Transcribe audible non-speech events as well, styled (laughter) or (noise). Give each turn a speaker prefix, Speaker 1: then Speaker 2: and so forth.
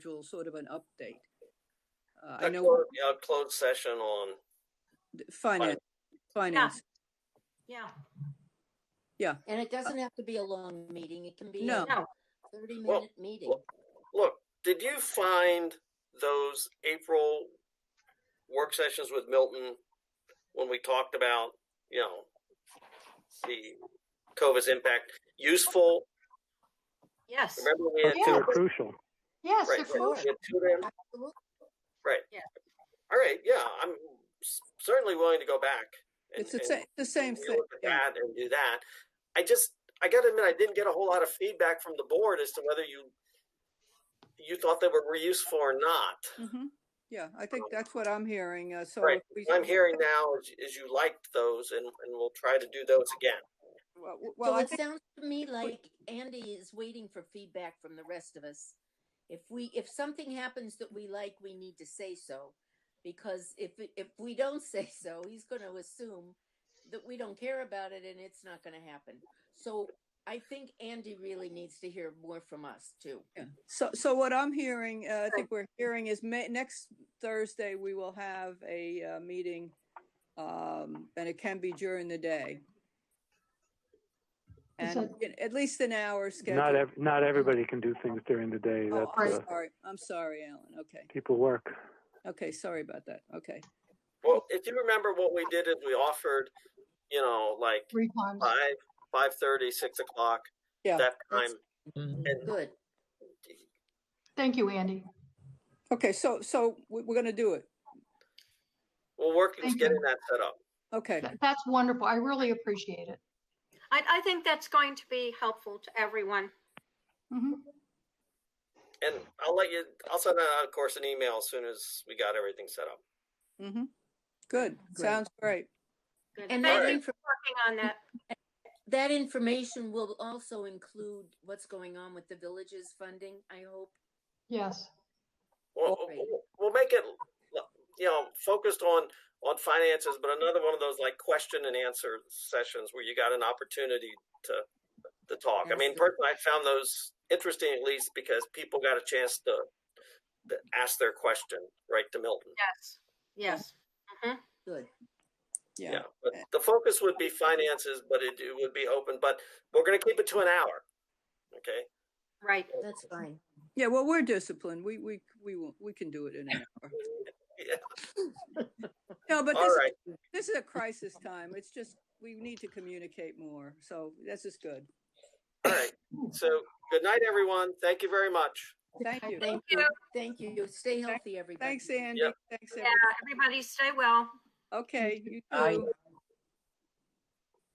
Speaker 1: usual sort of an update. Uh, I
Speaker 2: A
Speaker 1: know
Speaker 2: clo- Yeah, a closed session on,
Speaker 1: finance, finance,
Speaker 3: Yeah,
Speaker 4: And it doesn't have to be a long meeting. It can be
Speaker 1: No.
Speaker 4: a
Speaker 3: no,
Speaker 4: thirty
Speaker 2: Well,
Speaker 4: minute meeting.
Speaker 2: well- look, did you find those April work sessions with Milton when we talked about, you know, the COVID's impact useful?
Speaker 3: yes,
Speaker 2: Remember we had two,
Speaker 5: They're
Speaker 2: right,
Speaker 5: crucial.
Speaker 3: yes,
Speaker 2: right,
Speaker 3: of course.
Speaker 2: we had two of them?
Speaker 4: Absolutely.
Speaker 2: Right.
Speaker 3: Yeah.
Speaker 2: All right, yeah, I'm s- certainly willing to go back. and-
Speaker 1: it's the
Speaker 2: and-
Speaker 1: same, the same
Speaker 2: we
Speaker 1: thing.
Speaker 2: look at
Speaker 1: yeah.
Speaker 2: that and do that. I just, I got to admit, I didn't get a whole lot of feedback from the board as to whether you you thought they were useful or not.
Speaker 1: Mhm. Yeah, I think that's what I'm hearing, uh, so.
Speaker 2: Right.
Speaker 1: if we-
Speaker 2: What I'm hearing now is, is you liked those, and, and we'll try to do those again.
Speaker 1: Well, well,
Speaker 4: So
Speaker 1: I
Speaker 4: it
Speaker 1: think,
Speaker 4: sounds to me like Andy is waiting for feedback from the rest of us. If we, if something happens that we like, we need to say so. Because if, it- if we don't (laughs) say so, he's gonna assume that we don't care about it and it's not gonna happen. So I think Andy really needs to hear more from us too.
Speaker 1: yeah. so, so what I'm hearing, uh, I think we're hearing is ma- next Thursday, we will have a, uh, meeting. Um, and it can be during the day.
Speaker 5: Is
Speaker 1: And at least an hour schedule.
Speaker 5: Not ev- not everybody can do things during the day.
Speaker 1: Oh,
Speaker 5: That's
Speaker 1: I'm
Speaker 5: uh,
Speaker 1: sorry, I'm sorry, Alan, okay,
Speaker 5: people work.
Speaker 1: okay, sorry about that, okay.
Speaker 2: Well, if you remember what we did is we offered, you know, like
Speaker 6: three times.
Speaker 2: five, five thirty, six o'clock,
Speaker 1: Yeah.
Speaker 2: that time.
Speaker 4: Good.
Speaker 6: Thank you, Andy.
Speaker 1: Okay, so, so we- we're gonna do it,
Speaker 2: We'll work is
Speaker 6: Thank
Speaker 2: getting that set up.
Speaker 1: okay.
Speaker 6: Th- That's wonderful. I really appreciate it.
Speaker 3: I, I think that's going to be helpful to everyone.
Speaker 6: Mhm.
Speaker 2: And I'll let you, I'll send out, of course, an email as soon as we got everything set up.
Speaker 1: Mm-hmm. Good.
Speaker 4: Great.
Speaker 1: Sounds great.
Speaker 3: Good. Thank
Speaker 4: And that
Speaker 2: Alright.
Speaker 3: you
Speaker 4: infor-
Speaker 3: for working on that.
Speaker 4: that information will also include what's going on with the villages funding, I hope.
Speaker 6: Yes.
Speaker 2: Well,
Speaker 4: Right.
Speaker 2: we'll- we'll make it, you know, focused on on finances, but another one of those like question and answer sessions where you got an opportunity to to talk. I mean,
Speaker 4: Absolutely.
Speaker 2: personally, I found those interesting at least because people got a chance to, to ask their question right to Milton.
Speaker 3: Yes, yes. Mhm.
Speaker 4: Good.
Speaker 2: Yeah. But the focus would be finances, but it, it would be open. But we're going to keep it to an hour. Okay.
Speaker 3: Mm-hmm. Right.
Speaker 4: That's fine.
Speaker 1: Yeah, well, we're disciplined. We, we, we, will- we can do it in
Speaker 2: (laughs)
Speaker 1: an hour.
Speaker 2: Yeah.
Speaker 1: No, but
Speaker 2: All
Speaker 1: this,
Speaker 2: right.
Speaker 1: this is a crisis time. It's just, we need to communicate more. So this is good.
Speaker 2: All right. So good night, everyone. Thank you very much.
Speaker 1: Thank you.
Speaker 4: Thank
Speaker 3: you.
Speaker 4: you. Thank you. Stay healthy, everybody.
Speaker 1: Thanks, Andy.
Speaker 2: Yep.
Speaker 1: Thanks,
Speaker 3: Yeah,
Speaker 1: everyone.
Speaker 3: everybody stay well.
Speaker 1: Okay, you
Speaker 4: Bye.
Speaker 1: too.